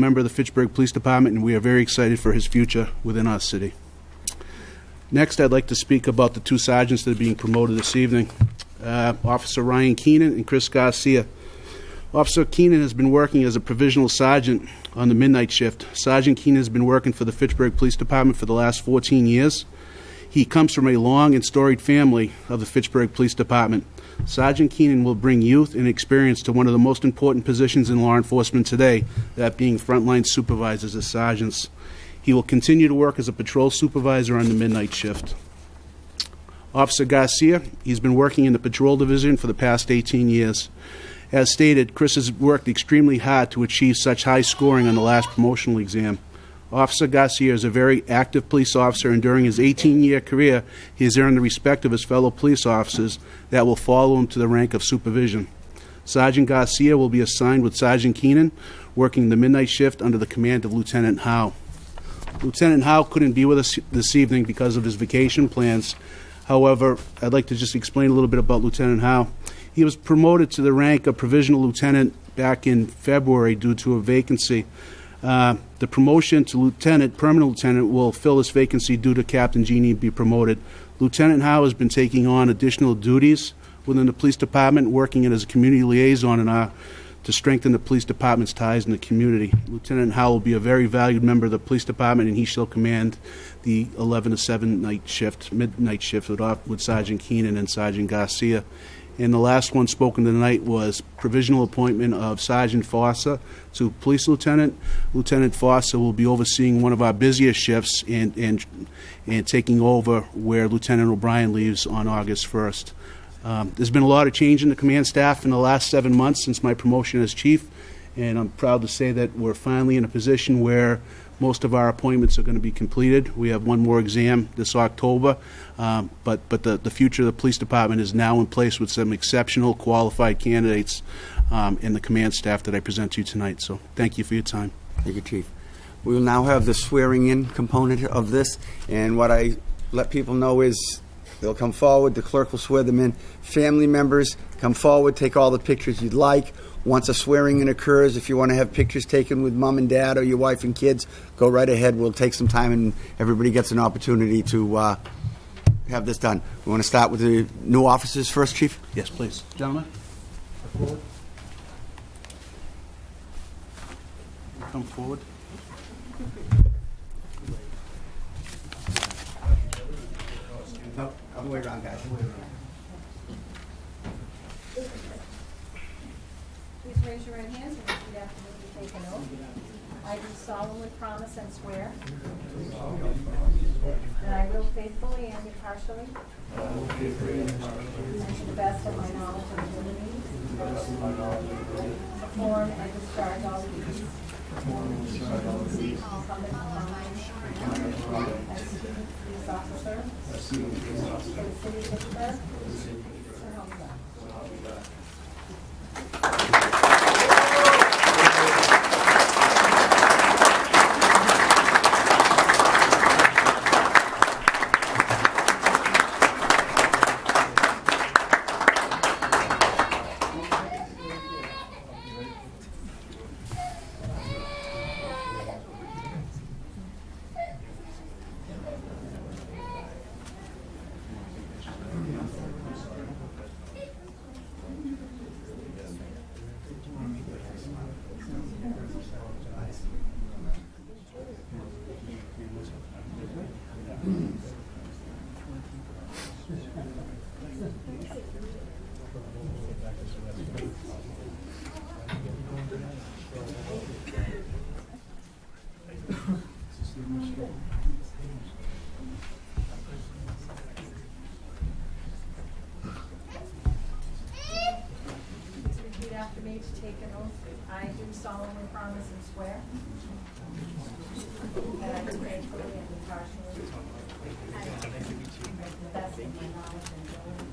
member of the Fitchburg Police Department, and we are very excited for his future within our city. Next, I'd like to speak about the two sergeants that are being promoted this evening, uh, Officer Ryan Keenan and Chris Garcia. Officer Keenan has been working as a provisional sergeant on the midnight shift. Sergeant Keenan has been working for the Fitchburg Police Department for the last 14 years. He comes from a long and storied family of the Fitchburg Police Department. Sergeant Keenan will bring youth and experience to one of the most important positions in law enforcement today, that being frontline supervisors as sergeants. He will continue to work as a patrol supervisor on the midnight shift. Officer Garcia, he's been working in the patrol division for the past 18 years. As stated, Chris has worked extremely hard to achieve such high scoring on the last promotional exam. Officer Garcia is a very active police officer, and during his 18 year career, he has earned the respect of his fellow police officers that will follow him to the rank of supervision. Sergeant Garcia will be assigned with Sergeant Keenan, working the midnight shift under the command of Lieutenant Howe. Lieutenant Howe couldn't be with us this evening because of his vacation plans. However, I'd like to just explain a little bit about Lieutenant Howe. He was promoted to the rank of provisional lieutenant back in February due to a vacancy. Uh, The promotion to lieutenant, permanent lieutenant, will fill this vacancy due to Captain Genie be promoted. Lieutenant Howe has been taking on additional duties within the police department, working in as a community liaison in our, to strengthen the police department's ties in the community. Lieutenant Howe will be a very valued member of the police department, and he shall command the 11 to 7 night shift, midnight shift with Op- with Sergeant Keenan and Sergeant Garcia. And the last one spoken tonight was provisional appointment of Sergeant Fossa to Police Lieutenant. Lieutenant Fossa will be overseeing one of our busiest shifts and, and, and taking over where Lieutenant O'Brien leaves on August 1st. Um, There's been a lot of change in the command staff in the last seven months since my promotion as chief, and I'm proud to say that we're finally in a position where most of our appointments are going to be completed. We have one more exam this October, um, but, but the, the future of the police department is now in place with some exceptional qualified candidates um, in the command staff that I present to you tonight. So thank you for your time. Thank you, Chief. We will now have the swearing-in component of this, and what I let people know is they'll come forward, the clerk will swear them in. Family members, come forward, take all the pictures you'd like. Once a swearing-in occurs, if you want to have pictures taken with mom and dad or your wife and kids, go right ahead. We'll take some time, and everybody gets an opportunity to uh, have this done. We want to start with the new officers first, Chief? Yes, please. Gentlemen? Come forward. No, other way around, guys. Please raise your right hands and repeat after me. You take an oath. I do solemnly promise and swear that I will faithfully and impartially and to the best of my knowledge and ability perform and discharge all duties incumbent upon me as student police officer for the city of Pittsburgh. So help me God. Please repeat after me to take an oath. I do solemnly promise and swear that I will faithfully and impartially and to the best of my knowledge and ability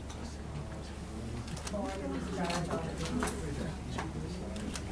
perform and discharge all the duties